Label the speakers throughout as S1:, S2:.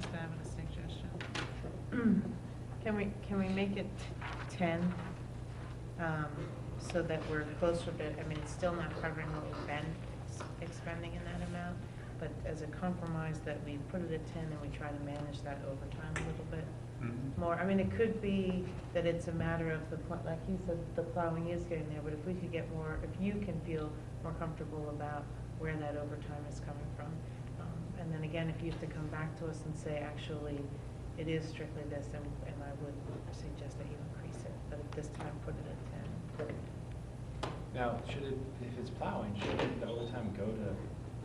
S1: Can we, can we make it 10, um, so that we're closer to, I mean, it's still not covering what we've been s- expending in that amount, but as a compromise that we put it at 10 and we try to manage that over time a little bit
S2: Mhm.
S3: Mm-hmm.
S1: more? I mean, it could be that it's a matter of the, pl- like you said, the plowing is getting there, but if we could get more, if you can feel more comfortable about where that overtime is coming from. um, And then again, if you have to come back to us and say, actually, it is strictly this, and and I would suggest that you increase it, but at this time, put it at 10.
S2: Now, should it, if it's plowing, should the overtime go to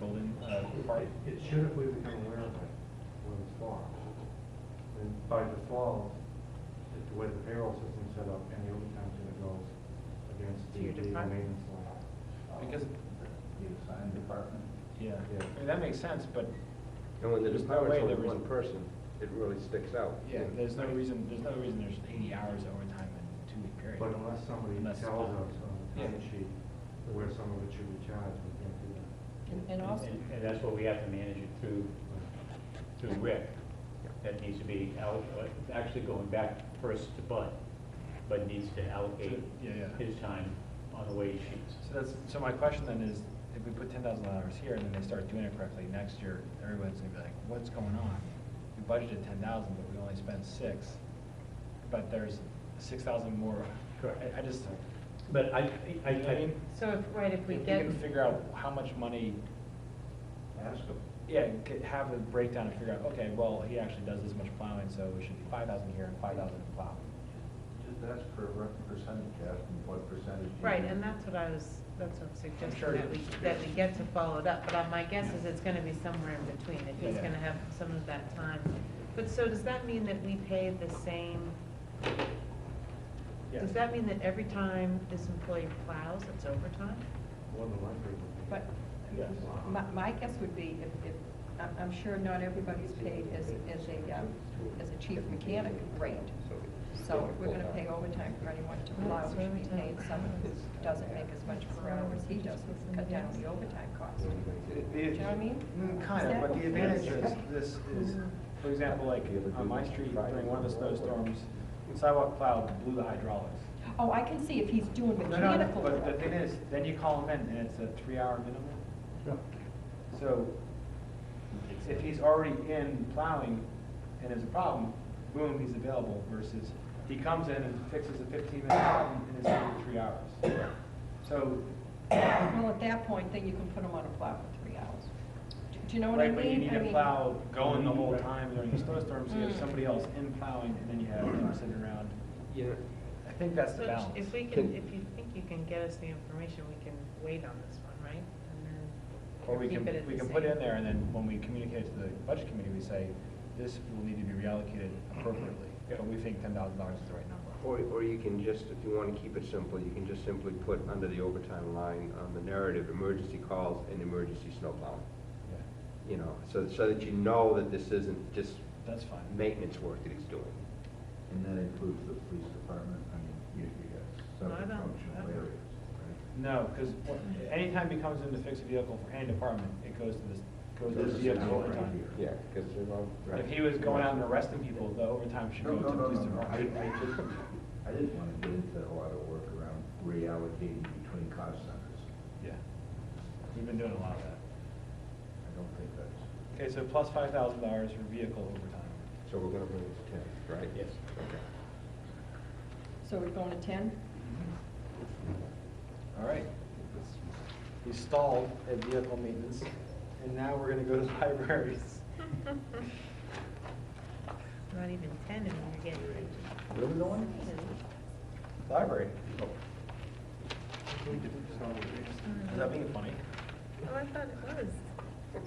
S2: Golden uh, Park?
S4: It it should if we become aware of it when it's fall. And by default, it's the way the payroll system's set up, any overtime that goes against
S1: To
S4: the
S1: your
S4: legal
S1: department.
S4: maintenance line.
S2: Because,
S5: The assigned department?
S2: yeah,
S4: Yeah.
S2: I mean, that makes sense, but,
S6: And when the
S2: There's no
S6: department's
S2: way
S6: only
S2: there was-
S6: one person, it really sticks out.
S2: yeah, there's no reason, there's no reason there's eighty hours of overtime in a two-week period.
S4: Uh, But unless somebody
S2: Unless
S4: tells
S2: it's
S4: us
S2: plowed.
S4: on the
S2: Yeah.
S4: time sheet where some of it should be charged, we can't do that.
S1: And also,
S3: And and that's what we have to manage it through, through Rick. That needs to be alloc, uh, actually going back first to Bud. Bud needs to allocate
S2: Yeah, yeah.
S3: his time on the wage sheets.
S2: So that's, so my question then is, if we put ten thousand hours here and then they start doing it correctly, next year, everyone's gonna be like, what's going on? We budgeted ten thousand, but we only spent six, but there's six thousand more.
S3: Correct.
S2: I, I just,
S3: But I, I,
S2: You know what I
S3: I,
S2: mean?
S1: so if, right, if
S2: if
S1: we
S2: we
S1: get,
S2: can figure out how much money,
S5: Ask them.
S2: yeah, c- have a breakdown and figure out, okay, well, he actually does this much plowing, so it should be five thousand here and five thousand in plowing.
S5: Just ask for a rep- percentage, ask them what percentage. you
S1: right,
S5: think.
S1: and that's what I was, that's what I'm
S2: sure
S1: suggesting, that we,
S2: it's-
S1: that we get to follow it up. But uh, my guess is it's going to be somewhere in between, if he's
S2: Yeah.
S1: going to have some of that time. But so does that mean that we pay the same Does that mean that every time this employee plows, it's overtime?
S4: More than likely. it would be.
S7: But
S2: Yes.
S7: my, my guess would be if, if, I'm, I'm sure not everybody's paid as, as a, um, as a chief mechanic rate. So if we're gonna pay overtime for anyone to plow, we should be paying someone who doesn't make as much per hour as he does, who can cut down the overtime cost.
S5: The-
S7: Do you know what I mean? Mm-hmm.
S2: Mm, Kind of, but the advantage is, this is, for example, like, on my street, during one of the snowstorms, sidewalk plow blew the hydraulics.
S7: Oh, I can see if he's doing
S2: No, no,
S7: mechanical work.
S2: But the thing is, then you call him in, and it's a three-hour minimum. So, if he's already in plowing and there's a problem, boom, he's available versus he comes in and fixes a fifteen-minute problem and it's only three hours. So,
S7: Well, at that point, then you can put him on a plow for three hours. Do- Do you know what I
S2: right,
S7: mean?
S2: but you need
S7: I
S2: to
S7: mean-
S2: plow going the whole time during the snowstorm, so you have
S7: Mm.
S2: somebody else in plowing and then you have him sitting around.
S6: Yeah,
S2: I think that's the
S1: So
S2: balance.
S1: If we can, if you think you can get us the information, we can wait on this one, right? And then
S2: Or we
S1: keep
S2: can,
S1: it at
S2: we
S1: the
S2: can put
S1: same.
S2: in there, and then when we communicate to the budget committee, we say, this will need to be reallocated appropriately, but we think ten thousand dollars is the right number.
S6: or, or you can just, if you wanna keep it simple, you can just simply put under the overtime line on the narrative, emergency calls and emergency snow plowing.
S2: Yeah,
S6: You know, so, so that you know that this isn't just
S2: That's fine.
S6: maintenance work that he's doing.
S5: And that includes the police department, I mean, you, you got
S1: No, I don't-
S5: several
S1: I
S5: functional
S1: don't.
S5: areas, right?
S2: No, because anytime he comes in to fix a vehicle for any department, it goes to this, goes to
S5: This
S2: this
S5: is
S2: vehicle
S5: now right
S2: overtime.
S5: here.
S6: Yeah, because they're all.
S2: If he was going out and arresting people, the overtime should
S5: No,
S2: go to
S5: no,
S2: the
S5: no,
S2: police
S5: no, no, I, I
S2: department.
S5: just, I didn't wanna get into a lot of work around reallocating between cost centers.
S2: Yeah. We've been doing a lot of that.
S5: I don't think that's,
S2: Okay, so plus five thousand dollars for vehicle overtime.
S6: So we're gonna bring it to ten, right?
S3: Yes.
S6: Okay.
S7: So we're going to ten?
S2: All right. We stalled at vehicle maintenance, and now we're gonna go to libraries.
S1: Not even ten, and you're getting rich.
S2: Where are we going? Library. Is that being funny?
S1: Oh, I thought it was.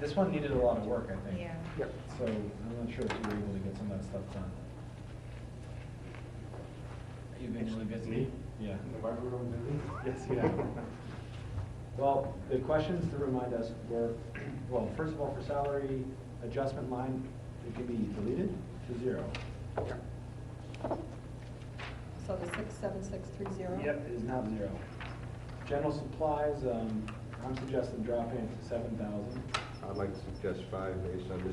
S2: This one needed a lot of work, I think.
S1: Yeah.
S6: Yep.
S2: So I'm not sure if you were able to get some of that stuff done. Are you eventually busy?
S4: Me?
S2: Yeah.
S4: The library room busy?
S2: Yes, you have. Well, the questions to remind us were, well, first of all, for salary adjustment line, it can be deleted to zero.
S7: So the six, seven, six, three, zero?
S2: Yep, it is not zero. General supplies, um, I'm suggesting dropping it to seven thousand.
S6: I'd like to suggest five based on this